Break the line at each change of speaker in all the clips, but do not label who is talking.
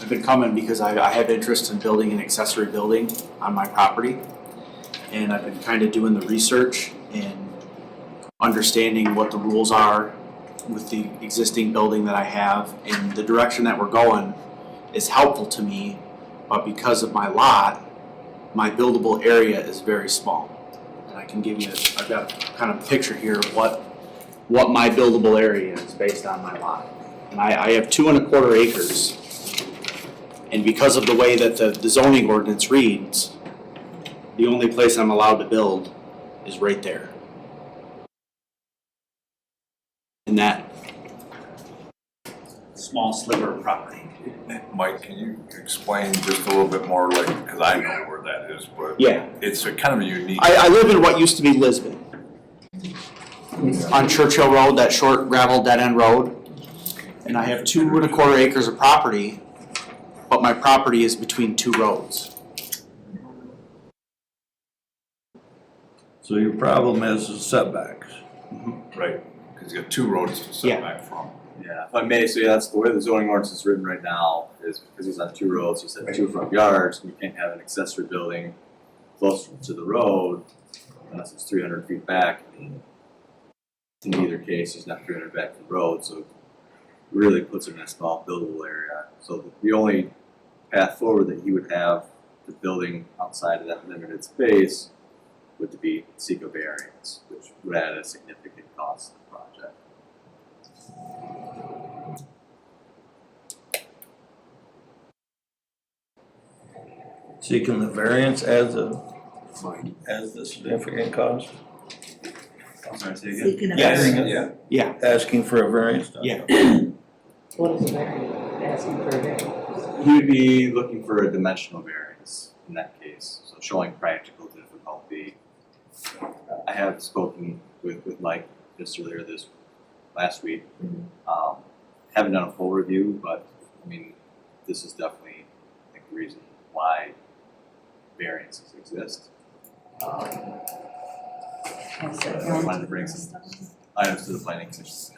I've been coming because I, I have interest in building an accessory building on my property. And I've been kind of doing the research and understanding what the rules are with the existing building that I have. And the direction that we're going is helpful to me, but because of my lot, my buildable area is very small. And I can give you, I've got a kind of picture here of what, what my buildable area is based on my lot. And I, I have two and a quarter acres. And because of the way that the the zoning ordinance reads, the only place I'm allowed to build is right there. In that small sliver of property.
Mike, can you explain just a little bit more, like, because I know where that is, but
Yeah.
it's a kind of a unique,
I, I live in what used to be Lisbon. On Churchill Road, that short gravel dead end road. And I have two and a quarter acres of property, but my property is between two roads.
So your problem is the setbacks.
right? Because you got two roads to
Mm-hmm. Yeah.
set back from.
Yeah, if I may, so yeah, that's the way the zoning ordinance is written right now, is because he's on two roads, he's at two front yards, and you can't have an accessory building close to the road unless it's three hundred feet back. In either case, he's not three hundred back from the road, so it really puts it in a small buildable area. So the only path forward that he would have, the building outside of that limited space, would be seek a variance, which would add a significant cost to the project.
Seeking the variance as a, as the significant cause,
I'm sorry, say
Seeking a
Yes.
variance.
Yeah.
Yeah,
asking for a variance.
yeah.
What is a variance? Asking for a variance.
You would be looking for a dimensional variance in that case, so showing practical difficulty. I have spoken with, with Mike just earlier this, last week. Um, haven't done a full review, but, I mean, this is definitely, I think, the reason why variances exist. Um,
That's
so
it.
I wanted to bring some items to the planning commission.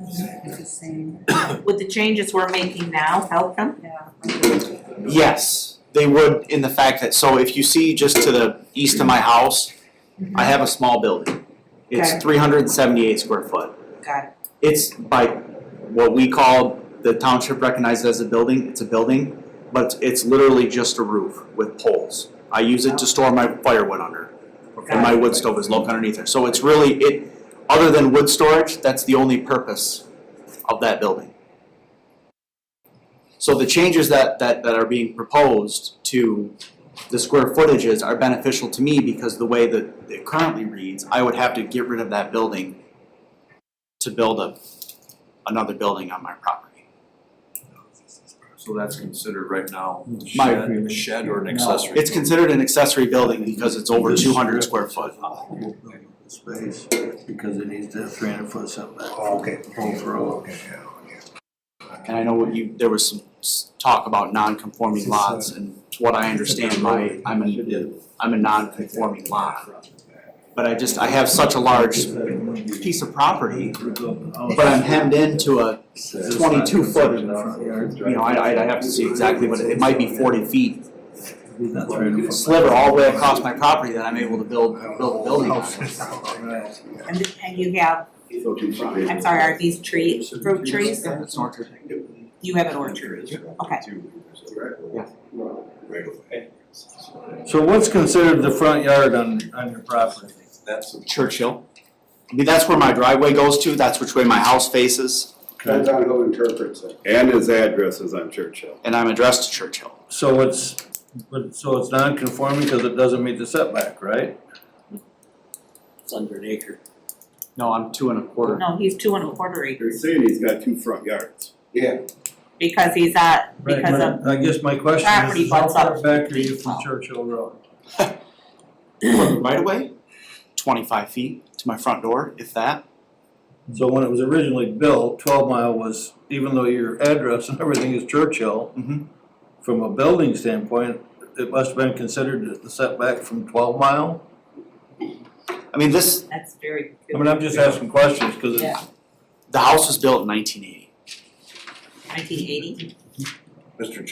It's the same. Would the changes we're making now help them? Yeah.
Yes, they would in the fact that, so if you see just to the east of my house, I have a small building. It's
Okay.
three hundred and seventy-eight square foot.
Got it.
It's by what we call, the township recognized as a building, it's a building, but it's literally just a roof with poles. I use it to store my firewood under, and my wood stove is located underneath there, so it's really, it, other than wood storage, that's the only purpose of that building. So the changes that, that, that are being proposed to the square footages are beneficial to me because the way that it currently reads, I would have to get rid of that building to build a, another building on my property.
So that's considered right now
My-
shed, a shed or an accessory.
It's considered an accessory building because it's over two hundred square foot.
Uh, Space, because it needs to have three hundred foot setback.
Oh, okay.
Both roads.
And I know what you, there was some s- talk about non-conforming lots and to what I understand, my, I'm a, I'm a non-conforming lot. But I just, I have such a large piece of property, but I'm hemmed into a, twenty-two foot, you know, I, I'd have to see exactly what, it it might be forty feet. Sliver all the way across my property that I'm able to build, build a building on.
And, and you have, I'm sorry, are these trees, fruit trees?
It's an orchard.
You have an orchard. Okay.
So what's considered the front yard on, on your property?
That's,
Churchill. I mean, that's where my driveway goes to, that's which way my house faces,
Depends on who interprets it.
And his address is on Churchill.
and I'm addressed to Churchill.
So it's, but, so it's non-conforming because it doesn't meet the setback, right?
It's under an acre. No, I'm two and a quarter.
No, he's two and a quarter
You're
acres
saying he's got two front yards.
Yeah,
because he's at, because of,
Right, my- I guess my question
property
is, how
butts up Oh.
far back are you
deep
from
well.
Churchill Road?
Right away, twenty-five feet to my front door, if that.
So when it was originally built, twelve mile was, even though your address and everything is Churchill,
Mhm.
from a building standpoint, it must have been considered the setback from twelve mile?
I mean, this,
that's very.
I mean, I'm just asking questions, cause
Yeah.
it's,
the house was built in nineteen eighty.
Nineteen eighty?
Mr.